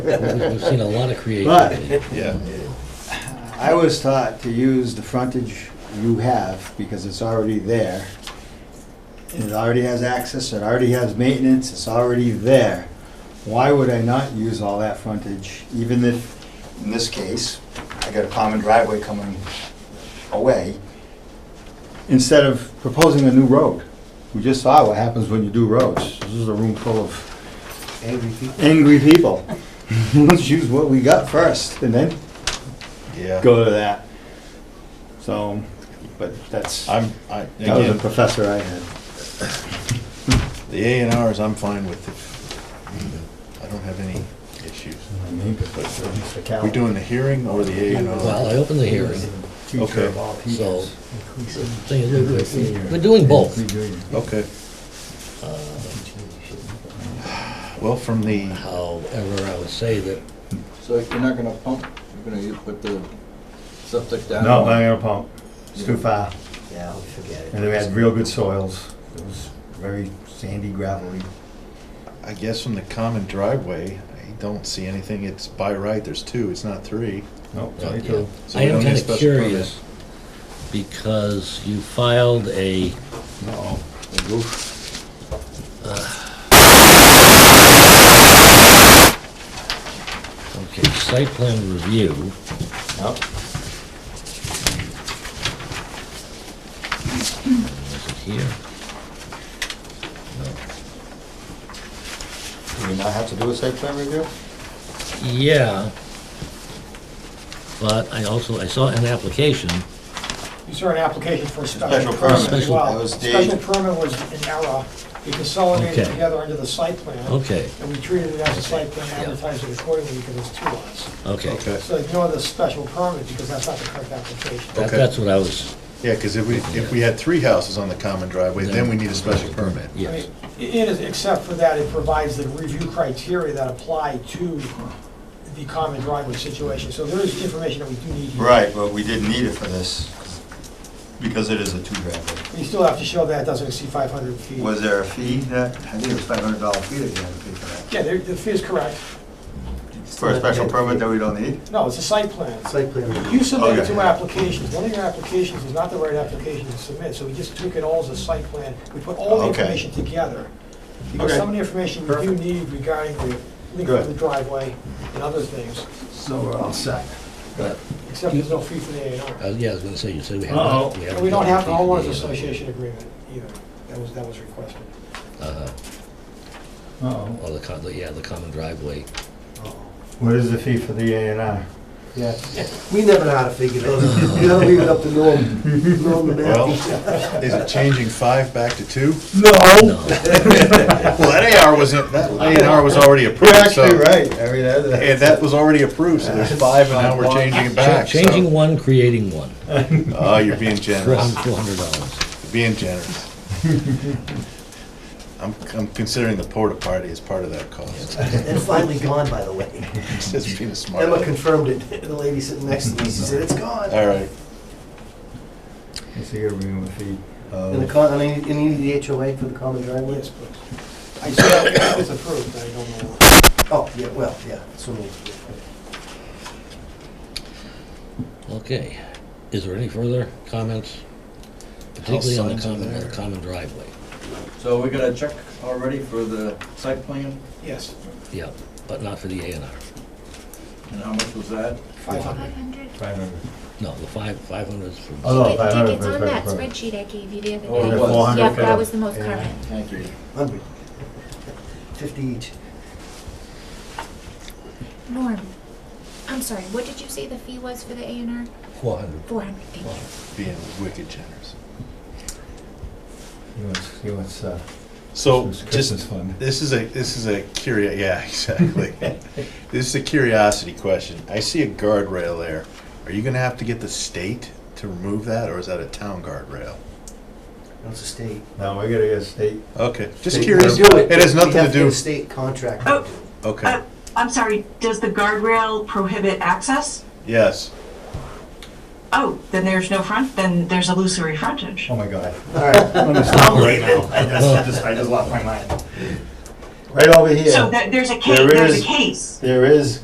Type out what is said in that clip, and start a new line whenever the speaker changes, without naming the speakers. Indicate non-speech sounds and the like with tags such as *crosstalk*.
We've seen a lot of creativity.
*laughs*
But
Yeah.
I was taught to use the frontage you have because it's already there. It already has access, it already has maintenance, it's already there. Why would I not use all that frontage, even if, in this case, I got a common driveway coming away, instead of proposing a new road? We just saw what happens when you do roads. This is a room full of
Angry people.
angry people. *laughs* Let's use what we got first and then
Yeah.
go to that. So, but that's, that
I'm, I,
was a
again,
professor I had.
the A and Rs I'm fine with. I don't have any issues.
My name is Mr. Cal.
We doing the hearing or the A and
Well,
R?
I opened the hearing,
Teacher of
okay.
all
so
teachers.
the thing is, we're- we're doing both.
Okay, Uh, well, from the,
However, I would say that
So you're not gonna pump, you're gonna put the septic down?
No, I'm gonna pump. It's too far.
Yeah, forget
And we had real good soils. It was very sandy gravelly.
I guess from the common driveway, I don't see anything. It's by right, there's two, it's not three.
Nope,
Yeah.
sorry too.
So
I
we
am
don't need a
kind of
special
curious, because you filed a,
Uh-oh. The roof.
okay, site plan review,
Yep.
is it here? No.
Do we not have to do a site plan review?
Yeah, but I also, I saw an application,
You saw an application for a special
Special
permit
permit.
as
That
well.
was the-
Special permit was an error. We consolidated
Okay.
together under the site plan,
okay,
and we treated it as a site plan,
Yeah.
advertised it accordingly because it's two lots.
okay.
Okay,
So ignore the special permit because that's not the correct application.
That- That's what I was,
yeah, because if we, if we had three houses on the common driveway, then we need a special permit.
I
yes,
mean, It is, except for that, it provides the review criteria that apply to the common driveway situation. So there is information that we do need here.
Right, but we didn't need it for this because it is a two driveway.
We still have to show that it doesn't exceed 500 feet.
Was there a fee that, I think it was five hundred dollar fee that you had to pay for that?
Yeah, the the fee is correct.
For a special permit that we don't need?
No, it's a site plan.
Site plan review.
You submitted
Okay.
two applications. One of your applications is not the right application to submit, so we just took it all as a site plan. We put all the
Okay.
information together. Because
Okay.
some of the information we do
Perfect.
need regarding the length of
Good.
the driveway and other things,
So we're all set.
but,
except there's no fee for the A and R.
uh, yeah, I was gonna say, you said we uh, have.
Uh-oh.
not-
And we don't have the homeowners
Yeah.
association agreement either. That was, that was requested.
Uh-huh.
Uh-oh.
Or the, co- the- yeah, the common driveway.
What is the fee for the A and R?
Yeah, we never know how to figure those, you gotta leave it up to Norm, Norm and
Well,
Matthew.
*laughs*
is it changing five back to two?
No.
Oh.
No,
Well, that AR was, that A and R was already
You're
approved, so.
actually right. I mean,
And
that-
that was already approved, so there's five, and now we're changing it
Cha-
*laughs* back. so-
changing one, creating one,
Oh, you're being
for
*laughs*
generous,
four hundred dollars.
You're being generous. I'm, I'm considering the porta party as part of that cost.
It's finally gone, by the way.
*laughs* It's Just being a smart.
Emma
aleck.
confirmed it, the lady sitting next to me, she said, it's gone.
All right,
Let's see, you're bringing the fee. of-
And the con, and you need the HOA for the common driveway?
Yes, please. I said it's approved, I don't know.
Oh, yeah, well, yeah, so maybe.
Okay, is there any further comments? Particularly on the
signs are
common, on the
there.
common driveway,
So we got a check already for the site plan,
Yes,
yeah, but not for the A and R.
and how much was that?
500.
500.
No, the five, five hundred is for.
Oh,
Wait, Dick,
500
it's
for
on
the credit
that
card.
spreadsheet I gave you the other
Oh,
night.
it was.
Yeah,
400
that was the most
Yeah.
current.
Thank you.
Hundred. Fifty each.
Norm, I'm sorry, what did you say the fee was for the A and R?
Four hundred.
400, thank you.
being wicked generous.
He wants, he wants, uh,
So,
Christmas- Christmas
just,
fund.
this is a, this is a curio, yeah, *laughs* exactly. This is a curiosity question. I see a guardrail there. Are you gonna have to get the state to remove that, or is that a town guardrail?
That's a state.
Now, we're gonna get a state.
Okay, just
State
curious.
guardrail.
It has
We
nothing
have
to Ah. do,
get a state contract. to do it.
okay,
Uh, I'm sorry, does the guardrail prohibit access?
yes.
Oh, then there's no front, then there's illusory frontage.
*laughs* Oh, my God.
All right,
I'm gonna stop right now. I just, I just lost my mind. right over here.
So that, there's a case,
There
there's
is-
a case.
There is